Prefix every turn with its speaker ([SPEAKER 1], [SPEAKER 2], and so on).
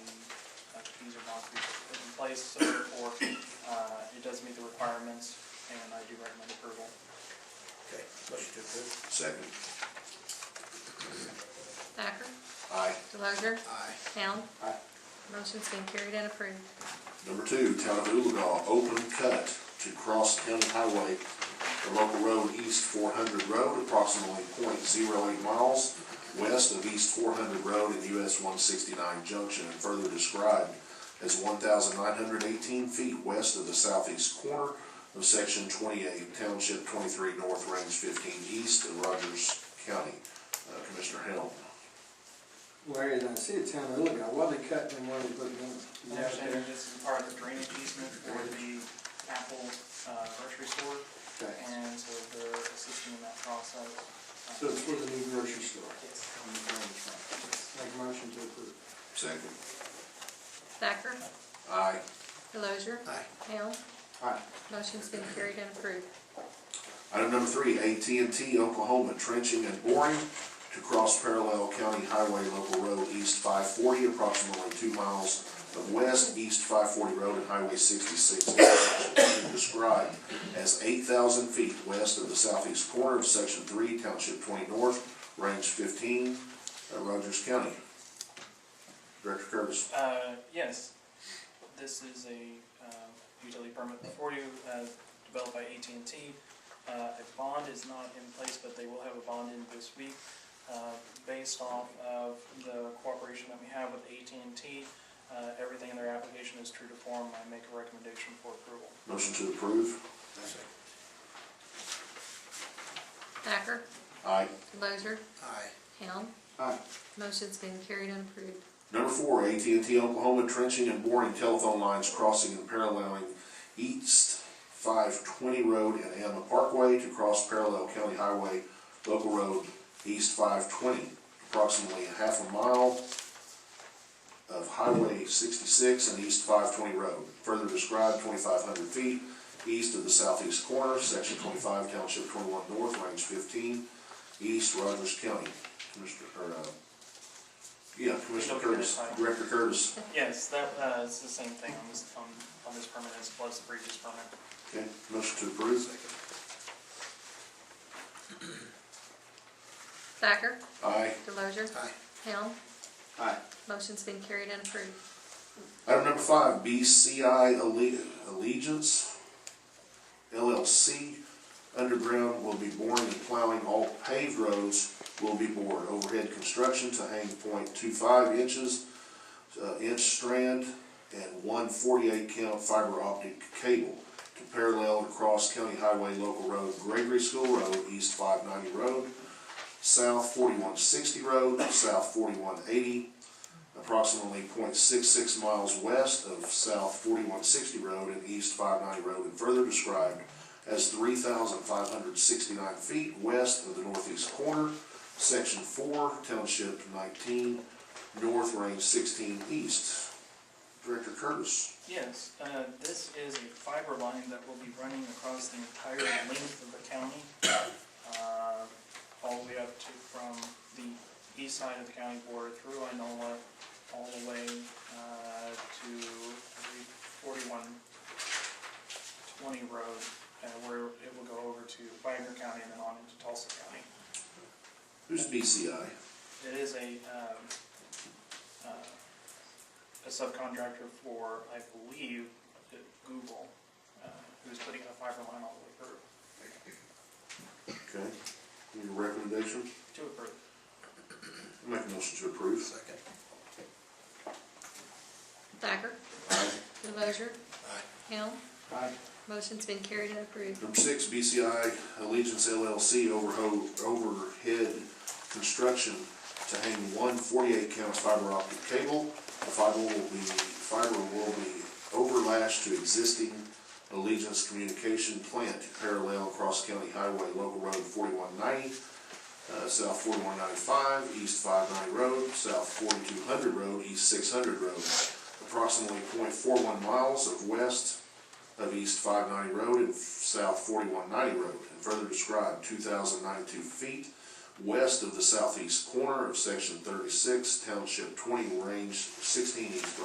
[SPEAKER 1] concrete is in place, so therefore, uh, it does meet the requirements, and I do recommend approval.
[SPEAKER 2] Okay, motion to approve.
[SPEAKER 3] Second.
[SPEAKER 4] Thacker,
[SPEAKER 3] Aye.
[SPEAKER 4] Delozer,
[SPEAKER 2] Aye.
[SPEAKER 4] Hal.
[SPEAKER 2] Aye.
[SPEAKER 4] Motion's been carried and approved.
[SPEAKER 3] Number two, Town of Ullagaw, open cut to cross county highway, the local road East four hundred road, approximately 0.08 miles west of East four hundred road and US one sixty-nine junction, and further described as one thousand nine hundred eighteen feet west of the southeast corner of section twenty-eight, township twenty-three north, range fifteen east of Rogers County. Uh, Commissioner Helm.
[SPEAKER 5] Larry, and I see it's town of Illigan, why they cutting and why they putting in?
[SPEAKER 1] My understanding this is part of the drainage easement for the Apple uh, grocery store,
[SPEAKER 5] Okay.
[SPEAKER 1] and so they're assisting in that process. Uh,
[SPEAKER 5] So it's for the new grocery store?
[SPEAKER 1] Yes.
[SPEAKER 5] On the ground floor. Make a motion to approve.
[SPEAKER 3] Second.
[SPEAKER 4] Thacker,
[SPEAKER 3] Aye.
[SPEAKER 4] Delozer,
[SPEAKER 2] Aye.
[SPEAKER 4] Hal.
[SPEAKER 5] Aye.
[SPEAKER 4] Motion's been carried and approved.
[SPEAKER 3] Item number three, AT&T Oklahoma trenching and boring to cross parallel County Highway Local Road East 540, approximately two miles of west, East 540 Road and Highway 66, described as 8,000 feet west of the southeast corner of Section 3, Township 20 North, Range 15, uh, Rogers County. Director Curtis.
[SPEAKER 1] Uh, yes, this is a um, utility permit before you, uh, developed by AT&T. Uh, A bond is not in place, but they will have a bond in this week, uh, based off of the cooperation that we have with AT&T. uh, Everything in their application is true to form, I make a recommendation for approval.
[SPEAKER 3] Motion to approve.
[SPEAKER 2] I second.
[SPEAKER 4] Thacker,
[SPEAKER 3] Aye.
[SPEAKER 4] Delozer,
[SPEAKER 2] Aye.
[SPEAKER 4] Hal.
[SPEAKER 5] Aye.
[SPEAKER 4] Motion's been carried and approved.
[SPEAKER 3] Number four, AT&T Oklahoma trenching and boring telephone lines crossing and paralleling East 520 Road and Amma Parkway to cross parallel County Highway Local Road East 520, approximately a half a mile of Highway 66 and East 520 Road. Further described, 2,500 feet east of the southeast corner, Section 25, Township 21 North, Range 15, East Rogers County. Commissioner, or, uh, yeah, Commissioner Curtis, Director Curtis.
[SPEAKER 1] Yes, that, uh, it's the same thing on this, on on this permit as was the previous permit.
[SPEAKER 3] Okay, motion to approve.
[SPEAKER 4] Thacker,
[SPEAKER 3] Aye.
[SPEAKER 4] Delozer,
[SPEAKER 2] Aye.
[SPEAKER 4] Hal.
[SPEAKER 5] Aye.
[SPEAKER 4] Motion's been carried and approved.
[SPEAKER 3] Item number five, BCI Alle- Allegiance LLC Underground will be boring and plowing all paved roads will be bored. Overhead construction to hang 0.25 inches, uh, inch strand, and one 48 count fiber optic cable to parallel across County Highway Local Road, Gregory School Road, East 590 Road, South 4160 Road, South 4180, approximately 0.66 miles west of South forty-one sixty road and east five ninety road, and further described as three thousand five hundred sixty-nine feet west of the northeast corner, section four, township nineteen, north range sixteen east. Director Curtis,
[SPEAKER 1] Yes, uh, this is a fiber line that will be running across the entire length of the county, uh, all the way up to, from the east side of the county border through Inola, all the way uh, to forty-one twenty road, uh, where it will go over to Wagner County and then on into Tulsa County.
[SPEAKER 3] who's BCI?
[SPEAKER 1] It is a, um, uh, a subcontractor for, I believe, uh, Google, uh, who's putting in a fiber line all the way through,
[SPEAKER 3] Okay, need a recommendation?
[SPEAKER 1] to approve.
[SPEAKER 3] Make a motion to approve.
[SPEAKER 2] Second.
[SPEAKER 4] Thacker, Delozer,
[SPEAKER 2] Aye.
[SPEAKER 4] Hal.
[SPEAKER 5] Aye.
[SPEAKER 4] Motion's been carried and approved.
[SPEAKER 3] Number six, BCI Allegiance LLC overho- overhead construction to hang one 48 count fiber optic cable. The fiber will be, fiber will be overlashed to existing Allegiance communication plant to parallel Cross County Highway Local Road 4190, uh, South 4195, East 590 Road, South 4200 Road, East 600 Road. Approximately .41 miles of west of East 590 Road and South 4190 Road, and further described 2,092 feet west of the southeast corner of Section 36, Township 20, Range 16 East